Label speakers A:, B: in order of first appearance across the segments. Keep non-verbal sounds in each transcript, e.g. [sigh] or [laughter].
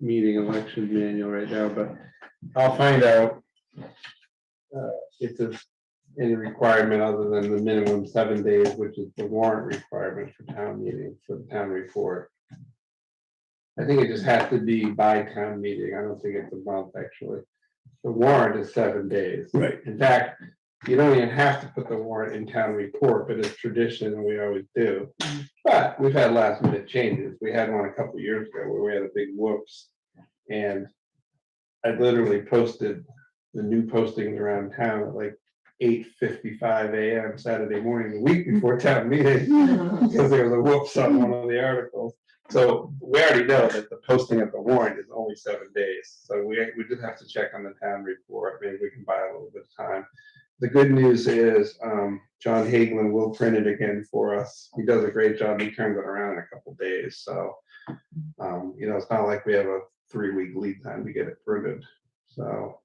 A: meeting election manual right now, but I'll find out. uh, If there's any requirement other than the minimum seven days, which is the warrant requirement for town meeting, for the town report. I think it just has to be by town meeting. I don't think it's a month, actually. The warrant is seven days.
B: Right.
A: In fact, you don't even have to put the warrant in town report, but it's tradition and we always do. But we've had last minute changes. We had one a couple years ago where we had a big whoops. And I literally posted the new postings around town at like eight fifty-five AM Saturday morning, the week before town meeting. Because there was a whoops on one of the articles. So we already know that the posting of the warrant is only seven days. So we, we just have to check on the town report. Maybe we can buy a little bit of time. The good news is, um, John Hagelin will print it again for us. He does a great job. He turns it around in a couple days, so. Um, you know, it's not like we have a three-week lead time to get it printed, so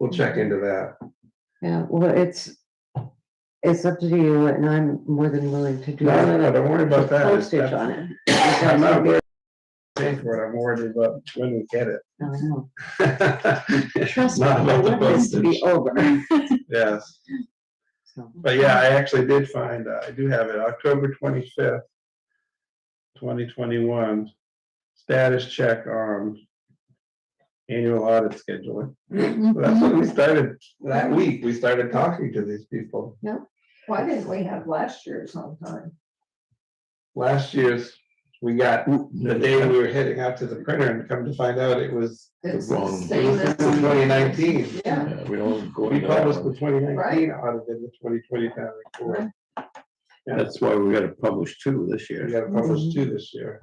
A: we'll check into that.
C: Yeah, well, it's, it's up to you and I'm more than willing to do.
A: No, no, no, don't worry about that.
C: Postage on it.
A: I'm not worried about paying for it. I'm worried about when we get it.
C: I know.
A: Trust
C: [laughs] Trust me, I want this to be over.
A: Yes,
C: [laughs] So,
A: but yeah, I actually did find, uh, I do have it, October twenty-fifth, twenty twenty-one, status check on annual audit scheduling.
C: Mm-hmm.
A: So That's when we started, that week, we started talking to these people.
D: Why didn't we have last year sometime?
A: Last year's, we got the day we were heading out to the printer and come to find out it was
D: It's
B: wrong-
D: the
A: it
D: same
A: was
D: as.
A: twenty nineteen.
D: Yeah,
B: Yeah, we don't go
A: We
B: into that
A: published the
B: one.
A: twenty nineteen
D: Right.
A: audit in the twenty twenty town report.
B: That's why we gotta publish two this
A: We
B: year.
A: gotta publish two this year.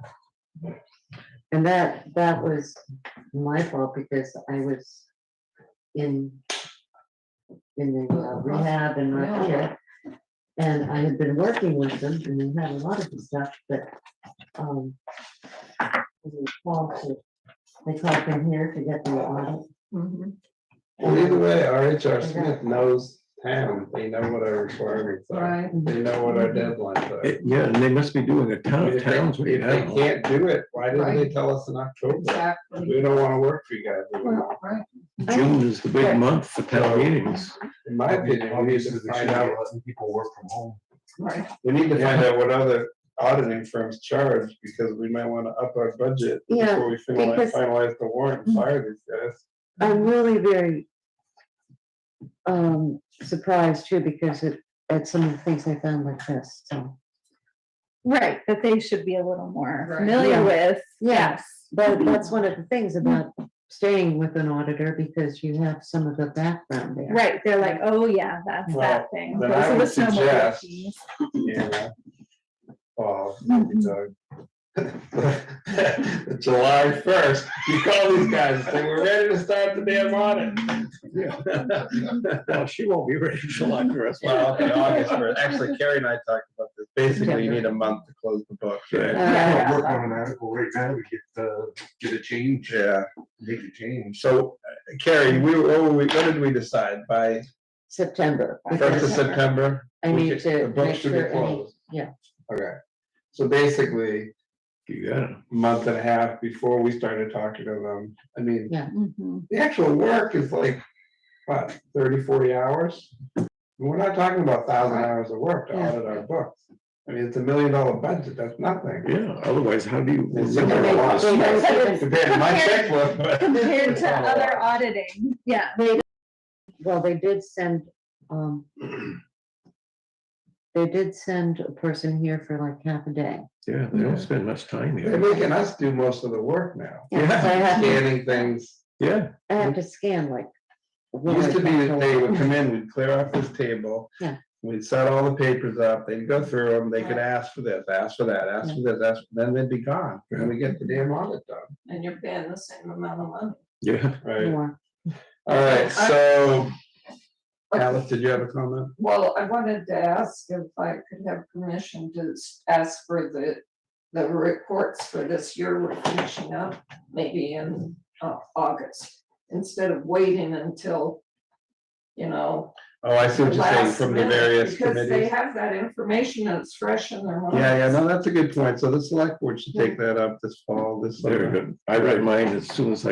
C: And that, that was my fault because I was in, in the uh, rehab and not here. And I had been working with them and they had a lot of the stuff, but, um, they called to, they called from here to get the audit.
D: mhm.
A: Well, either way, RHR Smith knows town, they know what our requirements are,
D: right,
A: they know what our deadlines are.
B: It- Yeah, and they must be doing a
A: I
B: ton
A: mean,
B: of
A: If they-
B: towns right
A: if they
B: now.
A: can't do it, why didn't they tell us in October?
D: exactly.
A: We don't wanna work for you guys, anymore.
D: Well, Right,
B: June is the big
C: Yeah.
B: month for town meetings.
A: in my opinion, we need to find out,
E: people work from home.
D: right.
A: we need to find out what other auditing firms charge, because we might wanna up our budget
C: Yeah,
A: before we finalize,
C: because-
A: finalize the warrant and fire these guys.
C: I'm really very um, surprised too, because it, at some of the things I found like this, so.
F: Right, that they should be a little more
D: Right.
C: Yeah.
F: familiar with.
C: Yes,
A: Mm-hmm.
C: but that's one of the things about staying with an auditor, because you have some of the background there.
F: Right, they're like, oh yeah, that's
A: Well,
F: that thing.
A: then
F: Those
A: I
F: are the
A: would
F: snowmobile
A: suggest-
F: things.
A: Yeah. Oh,
C: Mm-hmm.
A: maybe Doug. [laughs] July first, you call these guys and say, we're ready to start the damn audit.
B: [laughs] Well, she won't be ready till I dress.
A: Well, okay, August first, actually Carrie and I talked about this, basically you need a month to close the book.
B: Right.
C: Uh,
E: Work on an article right now to get, uh, get a change,
A: Yeah,
E: make a change.
A: so uh, Carrie, we, were- what were we, what did we decide, by
C: September.
A: first of
C: because
A: September?
C: I
A: we
C: need
A: should- the
C: to
A: book
C: make
A: should be
C: sure, any-
A: closed.
C: yeah.
A: Okay, so basically,
B: You got it.
A: month and a half before we started talking to them, I mean,
F: Mhm.
A: the actual work is like, what, 30, 40 hours? And We're not talking about thousand hours of work to
C: Yeah.
A: audit our books. I mean, it's a million dollar budget, that's nothing.
B: Yeah, otherwise how do you?
A: It's a lot.
B: Well,
A: Compared to my checkbook. but-
F: [laughs] Compared
A: It's
F: to
A: not a
F: other
A: lot.
F: auditing, yeah.
C: They, well, they did send, um, they did send a person here for like half a day.
B: Yeah, they don't spend much time
A: They're
B: here.
A: making us do most of the work now.
C: Yeah, so I have to-
A: Scanning things.
B: Yeah,
C: I
A: Mm-hmm.
C: have to scan like. one
A: Used
C: or
A: to be that they would
C: something.
A: come in, we'd clear off this table.
C: Yeah.
A: We'd set all the papers up, they'd go through them, they could ask for this, ask for that, ask for this, ask, then they'd be gone, and we get the damn audit done.
D: And you're paying the same amount of money.
B: yeah.
A: Right.
C: More.
A: All right, so
D: Uh,
A: Alice, did you have a comment?
D: Well, I wanted to ask if I could have permission to s- ask for the, the reports for this year we're finishing up, maybe in uh, August, instead of waiting until you know.
A: Oh, I see what you're saying,
D: last
A: from the
D: minute,
A: various
D: Because they
A: committees.
D: have that information and it's fresh in their mind.
A: Yeah, yeah, no, that's a good point. So the select board should take that up this fall, this summer.
B: Very good. I read mine as soon as I